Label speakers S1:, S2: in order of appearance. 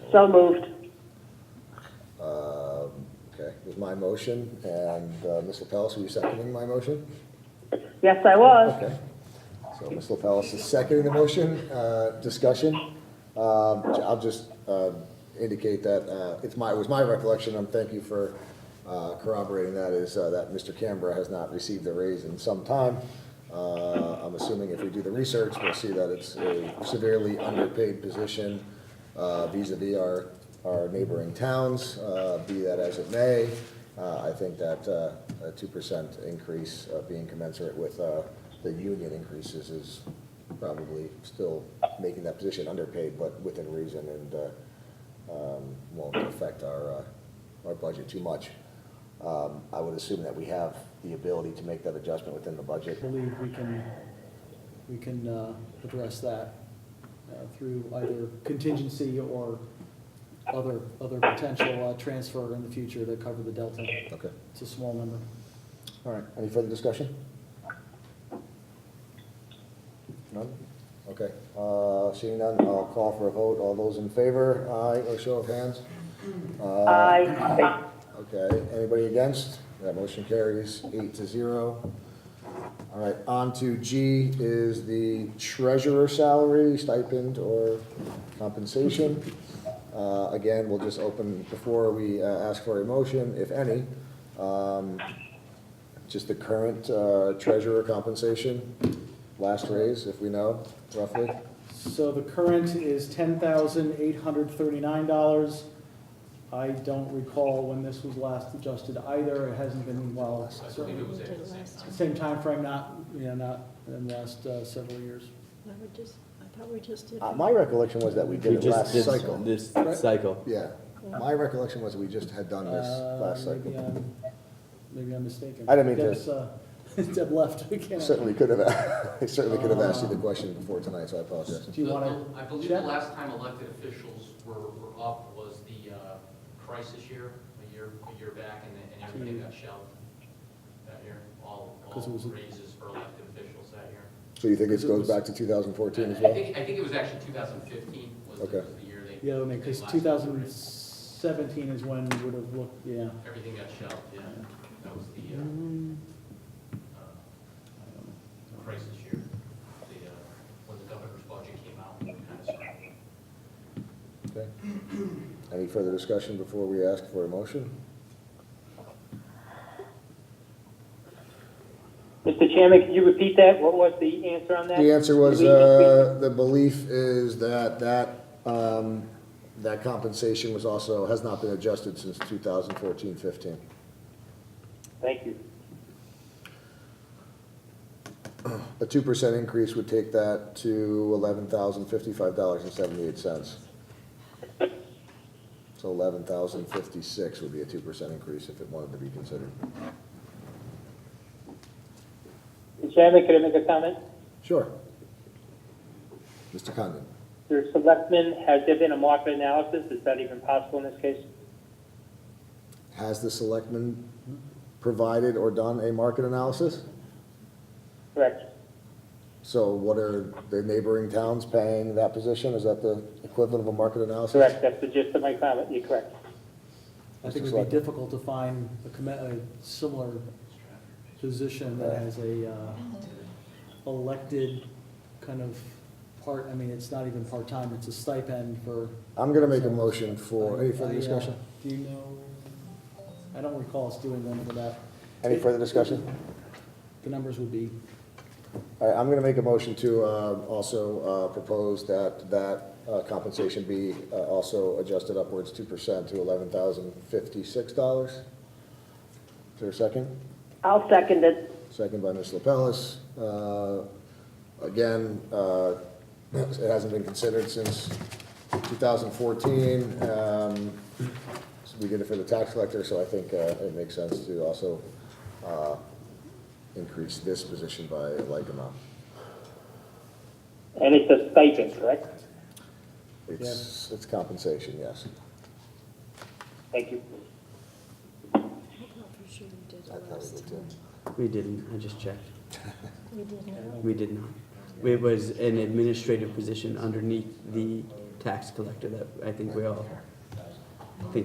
S1: So moved.
S2: Um, Okay, it was my motion, and uh, Ms. LaPellis, were you seconding my motion?
S1: Yes, I was.
S2: Okay. So Ms. LaPellis is seconding the motion, uh, discussion. Um, I'll just uh, indicate that uh, it's my, it was my recollection, and thank you for uh, corroborating that, is uh, that Mr. Canberra has not received a raise in some time. Uh, I'm assuming if we do the research, we'll see that it's a severely underpaid position uh, vis-à-vis our, our neighboring towns, uh, be that as it may. Uh, I think that uh, a two percent increase uh, being commensurate with uh, the union increases is probably still making that position underpaid, but within reason and uh, um, won't affect our, uh, our budget too much. Um, I would assume that we have the ability to make that adjustment within the budget.
S3: I believe we can, we can uh, address that uh, through either contingency or other, other potential uh, transfer in the future to cover the delta.
S2: Okay,
S3: It's a small number.
S2: all right, any further discussion? None? Okay, Uh, seeing none, I'll call for a vote. All those in favor, aye, or show of hands? Uh,
S1: Aye.
S2: Okay, anybody against? That motion carries eight to zero. All right, on to G is the treasurer salary, stipend, or compensation. Uh, Again, we'll just open, before we uh, ask for a motion, if any, um, just the current uh, treasurer compensation, last raise, if we know, roughly.
S3: So the current is ten thousand eight hundred thirty-nine dollars. I don't recall when this was last adjusted either. It hasn't been, well, certainly, same timeframe, not, you know, not in the last uh, several years.
S4: No, we just, I thought we just did.
S2: Uh, My recollection was that we did
S5: We
S2: it
S5: just
S2: last
S5: did
S2: cycle.
S5: this
S2: Right.
S5: cycle.
S2: Yeah, my recollection was we just had done this
S3: Uh,
S2: last cycle.
S3: Maybe I'm, maybe I'm mistaken.
S2: I didn't mean to-
S3: Deb's, uh, Deb left, we can't.
S2: Certainly could have, I certainly could have asked you the question before tonight, so I apologize.
S3: Do you
S6: The-
S3: wanna
S6: the- I believe the
S3: check?
S6: last time elected officials were, were up was the uh, crisis year, a year, a year back, and then and everybody got shelled that year. All, all
S3: 'Cause it was a-
S6: raises for elected officials that year.
S2: So you think this goes back to 2014 as
S6: I I
S2: well?
S6: think, I think it was actually 2015 was the,
S2: Okay.
S6: was the year they.
S3: Yeah, I mean, because
S6: they last
S3: two thousand
S6: raised.
S3: seventeen is when we would have looked, yeah.
S6: Everything got shelled, yeah. That was the
S3: Mm-hmm.
S6: uh, uh, crisis year, the, uh, when the governor's budget came out, kind of started.
S2: Okay. Any further discussion before we ask for a motion?
S1: Mr. Chairman, could you repeat that? What was the answer on that?
S2: The answer was,
S1: Did we-
S2: uh, the belief is that that, um, that compensation was also, has not been adjusted since 2014, 15.
S1: Thank you.
S2: A 2% increase would take that to $11,055.78. So 11,056 would be a 2% increase if it wanted to be considered.
S1: Mr. Chairman, could I make a comment?
S2: Sure. Mr. Condon?
S1: Mr. Selectman, has there been a market analysis? Is that even possible in this case?
S2: Has the selectman provided or done a market analysis?
S1: Correct.
S2: So what are the neighboring towns paying that position? Is that the equivalent of a market analysis?
S1: Correct. That's the gist of my comment. You're correct.
S3: I think it would
S2: Select-
S3: be difficult to find a comm- a similar position that has a, uh, elected kind of part, I mean, it's not even part-time, it's a stipend for.
S2: I'm gonna make a motion for, any
S3: I,
S2: further
S3: uh,
S2: discussion?
S3: Do you know, I don't recall us doing one for that.
S2: Any further discussion?
S3: The numbers would be
S2: All right, I'm gonna make a motion to, uh, also, uh, propose that, that uh, compensation be, uh, also adjusted upwards two percent to eleven thousand fifty-six dollars. Is there a second?
S1: I'll second it.
S2: Second by Ms. LaPellis. Uh, Again, uh, it hasn't been considered since 2014. Um, so We did it for the tax collector, so I think uh, it makes sense to also uh, increase this position by a like amount.
S1: And it's a stipend, correct?
S2: It's, it's compensation, yes.
S1: Thank you.
S4: I thought for sure we did
S2: I
S4: it
S2: thought we
S4: last
S2: did too.
S4: time.
S5: We didn't, I just checked.
S4: We did not.
S5: We did not. It was an administrative position underneath the tax collector that I think we all